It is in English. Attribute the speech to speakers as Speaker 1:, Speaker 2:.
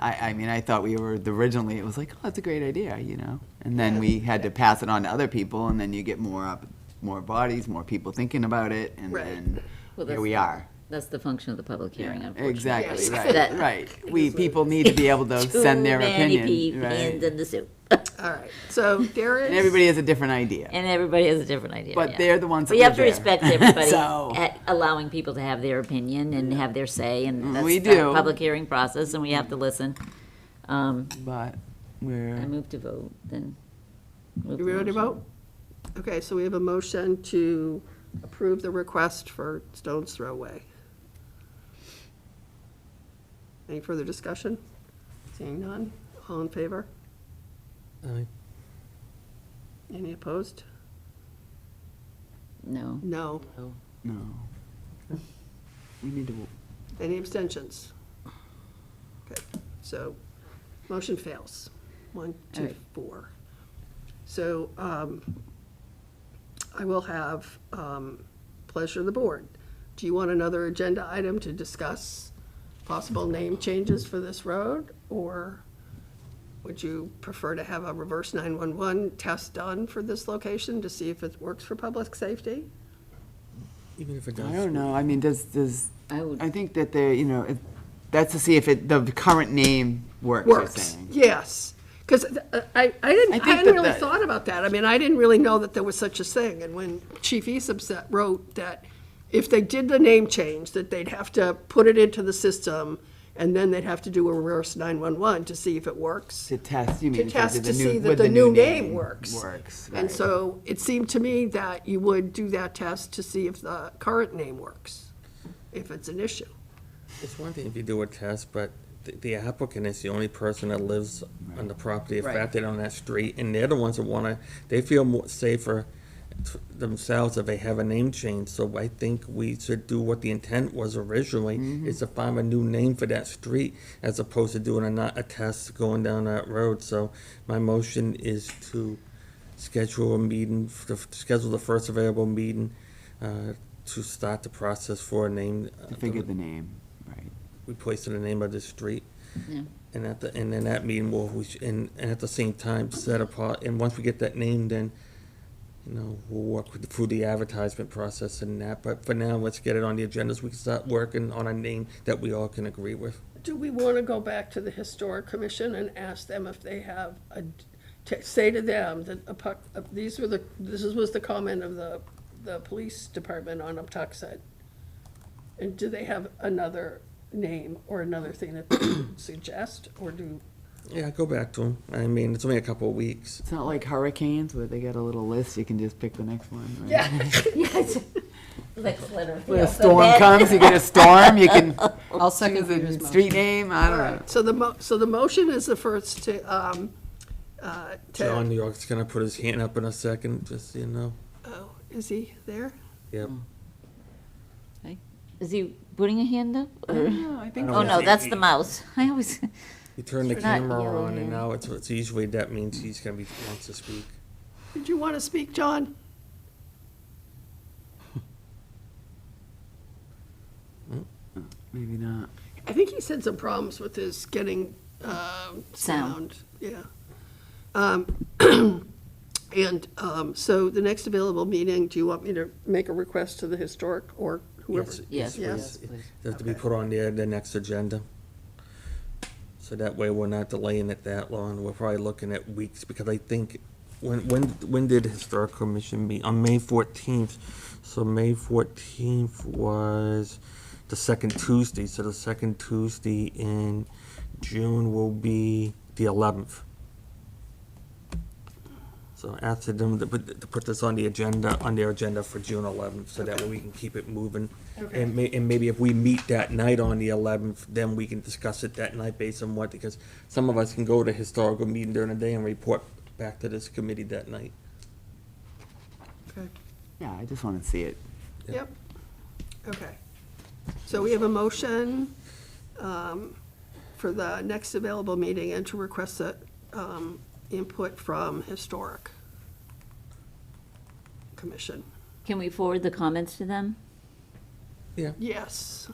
Speaker 1: I, I mean, I thought we were originally. It was like, oh, that's a great idea, you know. And then we had to pass it on to other people, and then you get more up, more bodies, more people thinking about it, and
Speaker 2: Right.
Speaker 1: then here
Speaker 3: Well, that's-
Speaker 1: we are.
Speaker 3: That's the function of the public hearing,
Speaker 1: Yeah,
Speaker 3: unfortunately.
Speaker 1: Exactly,
Speaker 2: Yes.
Speaker 1: right,
Speaker 3: That-
Speaker 1: right. We, people need to be able to
Speaker 3: Too
Speaker 1: send their
Speaker 3: many
Speaker 1: opinion,
Speaker 3: peas in
Speaker 1: right?
Speaker 3: the soup.
Speaker 2: All right, so there is.
Speaker 1: And everybody has a different idea.
Speaker 3: And everybody has a different idea.
Speaker 1: But
Speaker 3: yeah.
Speaker 1: they're the ones that
Speaker 3: But you have to
Speaker 1: live there.
Speaker 3: respect everybody,
Speaker 1: So-
Speaker 3: at allowing people to have their opinion and have their say, and that's
Speaker 1: Mm-hmm. We
Speaker 3: the
Speaker 1: do.
Speaker 3: public hearing process, and we have to listen. Um,
Speaker 1: But
Speaker 3: I
Speaker 1: we're,
Speaker 3: move to vote, then. move
Speaker 2: You ready to
Speaker 3: motion.
Speaker 2: vote? Okay, so we have a motion to approve the request for Stones Throw Way. Any further discussion? Seeing none, all in favor?
Speaker 4: Aye.
Speaker 2: Any opposed?
Speaker 3: No.
Speaker 2: No.
Speaker 1: no. We need to,
Speaker 2: Any abstentions? Okay, so, motion fails. One,
Speaker 3: All
Speaker 2: two,
Speaker 3: right.
Speaker 2: four. So, um, I will have, um, pleasure of the board. Do you want another agenda item to discuss possible name changes for this road? Or would you prefer to have a reverse nine-one-one test done for this location to see if it works for public safety?
Speaker 4: Even if it does.
Speaker 1: I don't know, I mean, does, does,
Speaker 3: I would-
Speaker 1: I think that they, you know, it- that's to see if it, the current name works, you're
Speaker 2: works.
Speaker 1: saying.
Speaker 2: Yes, because I, I didn't,
Speaker 1: I
Speaker 2: I
Speaker 1: think
Speaker 2: hadn't
Speaker 1: that
Speaker 2: really
Speaker 1: the-
Speaker 2: thought about that. I mean, I didn't really know that there was such a thing. And when Chief Esops that wrote that if they did the name change, that they'd have to put it into the system and then they'd have to do a reverse 911 to see if it works.
Speaker 1: To test, you mean?
Speaker 2: To
Speaker 1: if they did
Speaker 2: test
Speaker 1: the
Speaker 2: to
Speaker 1: new-
Speaker 2: see
Speaker 1: would
Speaker 2: that the new name works.
Speaker 1: Works,
Speaker 2: And
Speaker 1: right.
Speaker 2: so it seemed to me that you would do that test to see if the current name works, if it's an issue.
Speaker 4: It's one thing if you do a test, but th- the applicant is the only person that lives on the property affected on that street, and they're the ones that wanna, they feel more safer t- themselves if they have a name change, so I think we should do what the intent was
Speaker 1: Mm-hmm.
Speaker 4: originally, is to find a new name for that street, as opposed to doing a not, a test going down that road, so my motion is to schedule a meeting, f- to f- schedule the first available meeting, uh, to start the process for a name. uh,
Speaker 1: To figure the name, right.
Speaker 4: we place it in the name of the street.
Speaker 3: Yeah.
Speaker 4: And at the, and then that meeting will, we sh- and, and at the same time, set apart, and once we get that name, then, you know, we'll work with, through the advertisement process and that, but for now, let's get it on the agenda so we can start working on a name that we all can agree with.
Speaker 2: Do we want to go back to the Historic Commission and ask them if they have a, to say to them that a puck- uh, these were the, this is- was the comment of the, the police department on Uptuxet? And do they have another name or another thing that they would suggest, or do,
Speaker 4: Yeah, go back to them, I mean, it's only a couple of weeks.
Speaker 1: It's not like hurricanes where they got a little list, you can just pick the next one, right?
Speaker 2: yeah,
Speaker 3: Yes. Like, literally.
Speaker 1: When a storm comes, you get a storm, you can
Speaker 5: I'll second
Speaker 1: choose
Speaker 5: Peter's
Speaker 1: a
Speaker 5: motion.
Speaker 1: street name, I don't know.
Speaker 2: so the mo, so the motion is the first to, um, uh, to.
Speaker 4: John New York's gonna put his hand up in a second, just, so you know,
Speaker 2: Oh, is he there?
Speaker 4: yep.
Speaker 3: Is he putting a hand up? or-
Speaker 1: No, I think
Speaker 3: Oh, no, that's the mouse. I always,
Speaker 4: He turned the
Speaker 3: Not
Speaker 4: camera on,
Speaker 3: yelling.
Speaker 4: and now it's, it's usually, that means he's gonna be, wants to speak.
Speaker 2: Did you want to speak, John?
Speaker 1: Maybe not.
Speaker 2: I think he said some problems with his getting um,
Speaker 3: Sound.
Speaker 2: sound. Yeah. Um, And um, so the next available meeting, do you want me to make a request to the historic or whoever?
Speaker 4: Yes,
Speaker 3: yes,
Speaker 2: Yes.
Speaker 3: please, please.
Speaker 4: Does to be put on the, the next agenda. So that way we're not delaying it that long. We're probably looking at weeks because I think, when, when, when did the Historic Commission meet? On May fourteenth. So May fourteenth was the second Tuesday, so the second Tuesday in June will be the eleventh. So after them, to put, to put this on the agenda, on their agenda for June eleventh, so that way we can keep it moving. And may, and maybe if we meet that night on the eleventh, then we can discuss it that night based on what, because some of us can go to historical meeting during the day and report back to this committee that night.
Speaker 2: Okay.
Speaker 1: Yeah, I just want to see it.
Speaker 2: Yep. Okay. So we have a motion um, for the next available meeting and to request that um, input from historic commission.
Speaker 3: Can we forward the comments to them?
Speaker 4: Yeah,
Speaker 2: Yes.